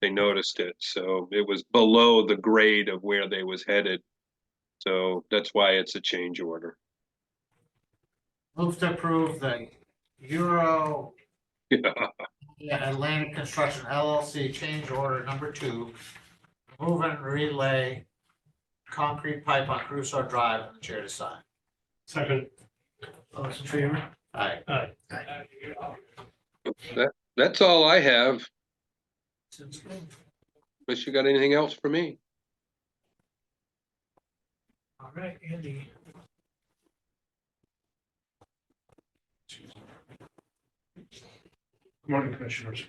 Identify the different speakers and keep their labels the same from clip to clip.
Speaker 1: they noticed it, so it was below the grade of where they was headed. So that's why it's a change order.
Speaker 2: Move to approve the Euro
Speaker 1: Yeah,
Speaker 2: Atlantic Construction LLC change order number two. Move and relay concrete pipe on Crusoe Drive and the chair to sign.
Speaker 3: Second,
Speaker 2: All those in favor? Aye.
Speaker 3: aye.
Speaker 1: that's all I have,
Speaker 2: Since-
Speaker 1: unless you got anything else for me.
Speaker 3: All right, Andy. Good Morning, Commissioners.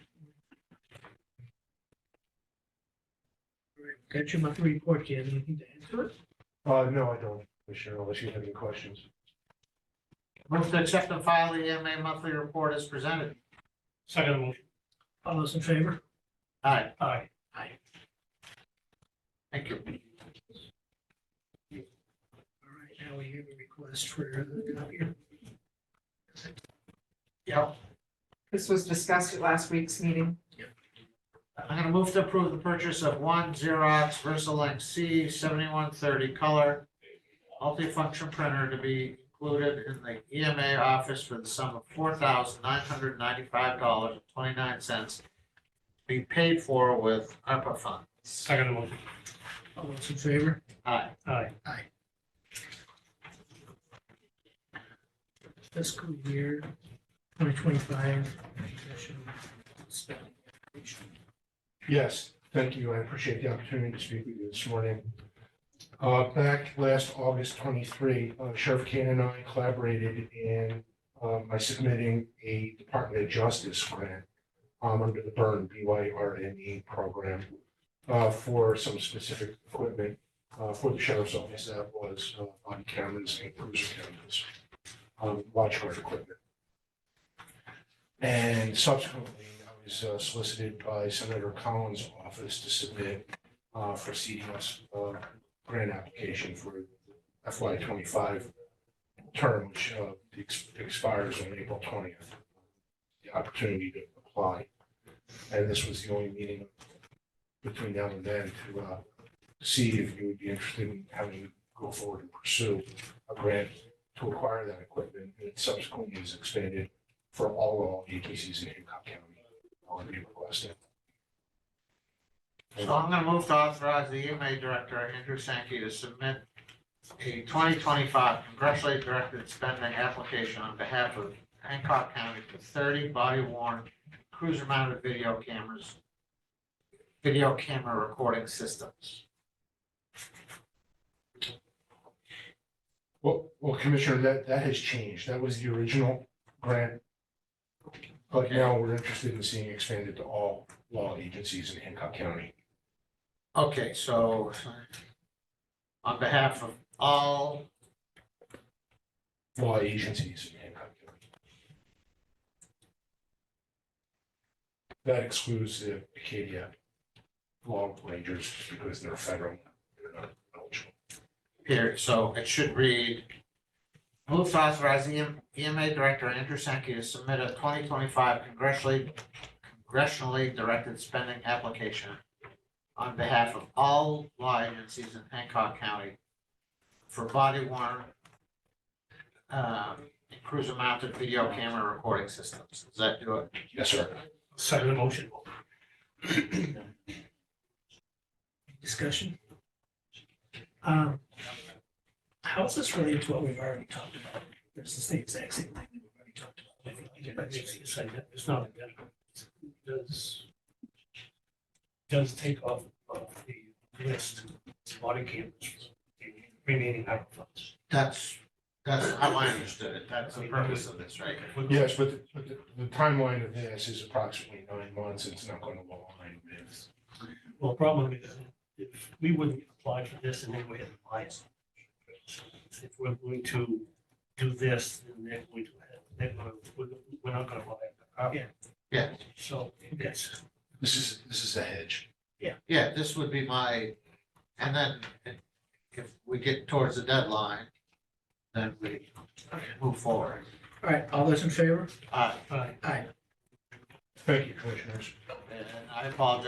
Speaker 3: All right, Got your monthly report, do you have anything to add to it? Uh, no, I don't, Commissioner, unless you have any questions.
Speaker 2: Move to accept and file the EMA monthly report as presented.
Speaker 3: Second motion. All those in favor?
Speaker 2: Aye,
Speaker 3: Aye.
Speaker 2: thank you.
Speaker 3: All right, now we have a request for uh, the copier.
Speaker 2: Yep,
Speaker 4: This was discussed at last week's meeting.
Speaker 2: I'm gonna move to approve the purchase of one Xerox Versalink C seventy-one thirty color multifunction printer to be included in the EMA office for the sum of four thousand nine hundred ninety-five dollars and twenty-nine cents. Be paid for with ARPA funds.
Speaker 3: Second motion. All those in favor?
Speaker 2: Aye.
Speaker 3: Aye. Aye. Fiscal year twenty twenty-five.
Speaker 5: Yes, thank you. I appreciate the opportunity to speak with you this morning. Uh, Back last August 23, uh, Sheriff Kane and I collaborated in, um, by submitting a Department of Justice grant um, under the burn B-Y-R-N-E E program uh, for some specific equipment uh, for the sheriff's office. That was uh, body cameras and cruiser cameras, um, watch guard equipment. And subsequently, I was uh, solicited by Senator Collins' office to submit uh, for CDS uh, grant application for FY twenty-five term, which uh, ex- expires on April twentieth. The opportunity to apply. And this was the only meeting between now and then to uh, see if you would be interested in having to go forward and pursue a grant to acquire that equipment. And it subsequently is expanded for all agencies in Hancock County. I'll be requesting.
Speaker 2: So I'm gonna move to authorize the EMA Director, Andrew Sankey, to submit a twenty twenty-five congressionally directed spending application on behalf of Hancock County for thirty body worn cruiser mounted video cameras, video camera recording systems.
Speaker 5: Well, well, Commissioner, that, that has changed. That was the original grant. But now we're interested in seeing expanded to all law agencies in Hancock County.
Speaker 2: Okay, so on behalf of all,
Speaker 5: Law agencies in Hancock County. That excludes the Acadia law rangers because they're federal. They're not eligible.
Speaker 2: here, so it should read, move to authorize E the EMA Director, Andrew Sankey, to submit a twenty twenty-five congressionally congressionally directed spending application on behalf of all law agencies in Hancock County for body worn um, cruiser mounted video camera recording systems. Does that do it?
Speaker 5: Yes, sir.
Speaker 3: Second motion. Discussion. Um, How is this related to what we've already talked about? This is the exact same thing that we've already talked about. It's not identical. Does, does take off of the list body cameras remaining ARPA funds.
Speaker 2: That's, that's how I understood it. That's the purpose of this, right?
Speaker 5: Yes, but the- but the the timeline of this is approximately nine months. It's not going to align with.
Speaker 3: Well, the problem is, if we wouldn't apply for this and then we had to buy it. If we're going to do this, then they're going to, they're gonna, we're, we're not gonna buy it.
Speaker 2: Yeah.
Speaker 3: So, yes,
Speaker 5: This is, this is a hedge.
Speaker 2: Yeah, this would be my, and then if we get towards the deadline, then we move forward.
Speaker 6: All right, all those in favor?
Speaker 2: Uh,
Speaker 3: aye.
Speaker 6: Aye.
Speaker 5: Thank you, commissioners.
Speaker 2: and I apologize